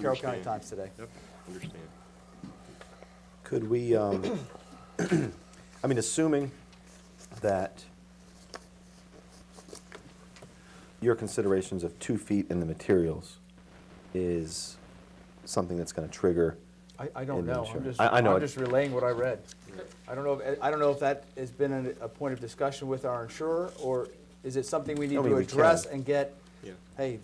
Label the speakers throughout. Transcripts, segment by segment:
Speaker 1: Carroll County
Speaker 2: Understand.
Speaker 1: Times today.
Speaker 2: Yep, understand.
Speaker 3: Could we, um, I mean, assuming that your considerations of two feet in the materials is something that's going to trigger,
Speaker 1: I, I don't
Speaker 3: And then
Speaker 1: know,
Speaker 3: sure.
Speaker 1: I'm just,
Speaker 3: I- I know
Speaker 1: I'm
Speaker 3: it-
Speaker 1: just relaying what I read. I don't know, if- I don't know if that has been a, a point of discussion with our insurer, or is it something we need
Speaker 3: I
Speaker 1: to
Speaker 3: mean, we can.
Speaker 1: address and get,
Speaker 2: Yeah.
Speaker 1: hey,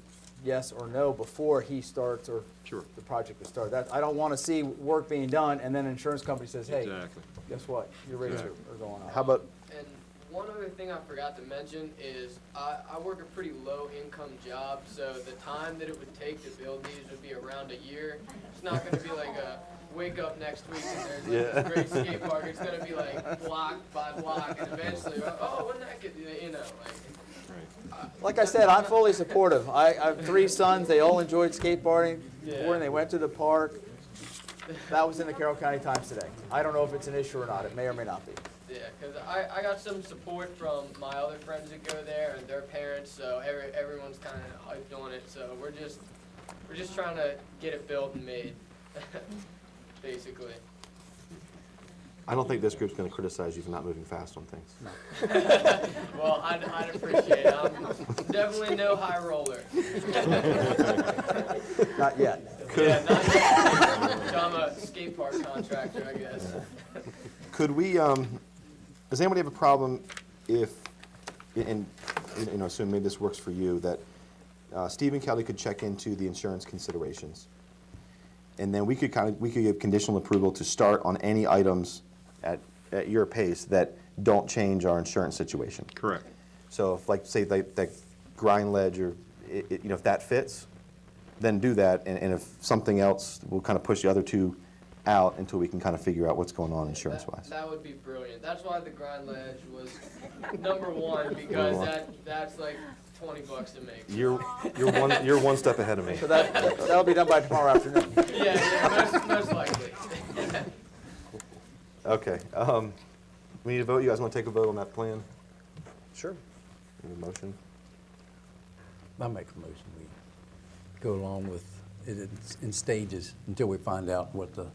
Speaker 1: yes or no, before he starts or
Speaker 2: Sure.
Speaker 1: the project is started? That, I don't wanna see work being done, and then insurance company says, hey,
Speaker 2: Exactly.
Speaker 1: guess what, your rates are
Speaker 2: Exactly.
Speaker 1: are going up.
Speaker 3: how about,
Speaker 4: And one other thing I forgot to mention is I, I work a pretty low income job, so the time that it would take to build these would be around a year. It's not gonna be like a wake up next week and there's like this great skate park. It's gonna be like block by block and eventually, oh, wouldn't that get, you know, like,
Speaker 2: Right.
Speaker 1: Like I said, I'm fully supportive. I, I have three sons, they all enjoyed skateboarding,
Speaker 4: Yeah.
Speaker 1: when they went to the park. That was in the Carroll County Times today. I don't know if it's an issue or not, it may or may not be.
Speaker 4: yeah, 'cause I, I got some support from my other friends that go there and their parents, so every, everyone's kinda hyped on it, so we're just, we're just trying to get it built and made, basically.
Speaker 3: I don't think this group's going to criticize you for not moving fast on things.
Speaker 4: Well, I'd, I'd appreciate it. I'm definitely no high roller.
Speaker 1: Not yet.
Speaker 4: Yeah, not yet. So I'm a skate park contractor, I guess.
Speaker 3: Could we, um, does anybody have a problem if, and, and, you know, assume maybe this works for you, that uh, Steve and Kelly could check into the insurance considerations? And then we could kind of, we could give conditional approval to start on any items at, at your pace that don't change our insurance situation.
Speaker 2: Correct.
Speaker 3: So if, like, say, like, that grind ledge or, i i you know, if that fits, then do that, and, and if something else, we'll kind of push the other two out until we can kind of figure out what's going on
Speaker 4: That,
Speaker 3: insurance-wise.
Speaker 4: that would be brilliant. That's why the grind ledge was number one, because that, that's like twenty bucks to make. Yeah,
Speaker 3: You're, you're one, you're one step ahead of me.
Speaker 1: So that, that'll be done by tomorrow afternoon.
Speaker 4: yeah, most, most likely.
Speaker 3: Okay, um, we need a vote, you guys wanna take a vote on that plan?
Speaker 1: Sure.
Speaker 3: Need a motion?
Speaker 5: I make a motion, we go along with it in- in stages until we find out what the,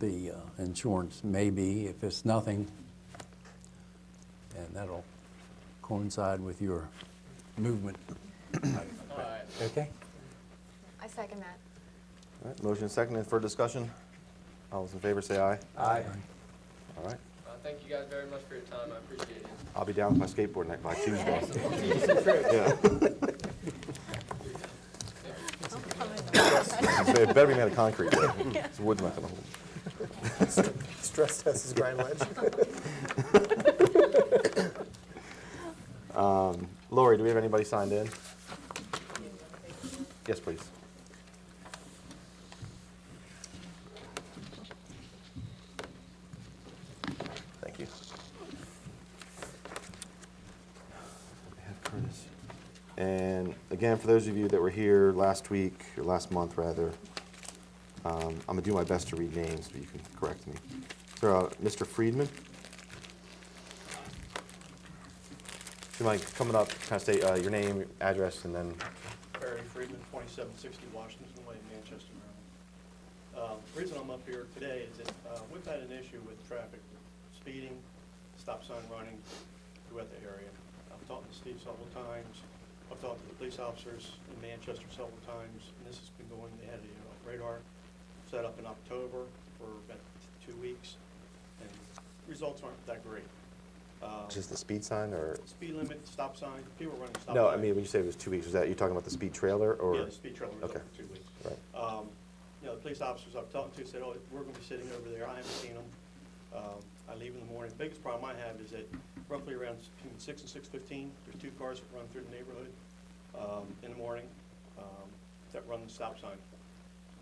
Speaker 5: the uh, insurance may be, if it's nothing. And that'll coincide with your movement.
Speaker 4: All right.
Speaker 5: Okay?
Speaker 6: I second that.
Speaker 3: All right, motion second, and for discussion? All those in favor say aye.
Speaker 1: Aye.
Speaker 3: All right,
Speaker 4: Uh, thank you guys very much for your time. I appreciate it.
Speaker 3: I'll be down with my skateboard next by Tuesday. It better be made of concrete, though. It's wood's not gonna hold.
Speaker 7: Stress test is grind ledge.
Speaker 3: Um, Lori, do we have anybody signed in? Yes, please. Thank you. We have Curtis. And again, for those of you that were here last week, or last month, rather, um, I'm gonna do my best to read names, but you can correct me. So, uh, Mr. Friedman? Do you mind coming up, kind of state uh, your name, your address, and then
Speaker 8: Barry Friedman, 2760 Washington Way, Manchester, Maryland. Um, The reason I'm up here today is that uh, we've had an issue with traffic, speeding, stop sign running throughout the area. I've talked to Steve several times, I've talked to the police officers in Manchester several times, and this has been going, they had a uh, radar set up in October for about two weeks, and results aren't that great. Um,
Speaker 3: just the speed sign, or?
Speaker 8: Speed limit, stop sign, people running stop sign.
Speaker 3: No, I mean, when you say it was two weeks, was that, you talking about the speed trailer, or?
Speaker 8: Yeah, the speed trailer was up
Speaker 3: Okay.
Speaker 8: for two weeks.
Speaker 3: Right.
Speaker 8: Um, You know, the police officers I've talked to said, oh, we're gonna be sitting over there, I haven't seen them. Um, I leave in the morning. The Biggest problem I have is that roughly around between six and six fifteen, there's two cars that run through the neighborhood um, in the morning um, that run the stop sign.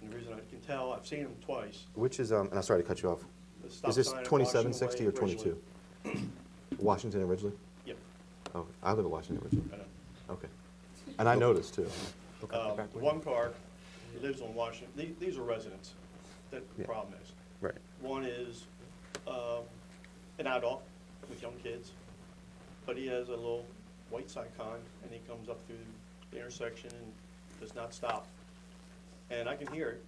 Speaker 8: And the reason I can tell, I've seen them twice.
Speaker 3: Which is, um, and I'm sorry to cut you off.
Speaker 8: The stop
Speaker 3: Is this
Speaker 8: sign at
Speaker 3: twenty-seven
Speaker 8: Washington
Speaker 3: sixty
Speaker 8: Way
Speaker 3: or twenty-two?
Speaker 8: originally-
Speaker 3: Washington originally?
Speaker 8: Yep,
Speaker 3: Oh, I live in Washington originally.
Speaker 8: I know.
Speaker 3: Okay. And I noticed too.
Speaker 8: Um, the One car lives on Washington, the- these are residents, that the
Speaker 3: Yeah.
Speaker 8: problem is.
Speaker 3: Right.
Speaker 8: One is um, an adult with young kids, but he has a little white Saigon, and he comes up through the intersection and does not stop. and I can hear it.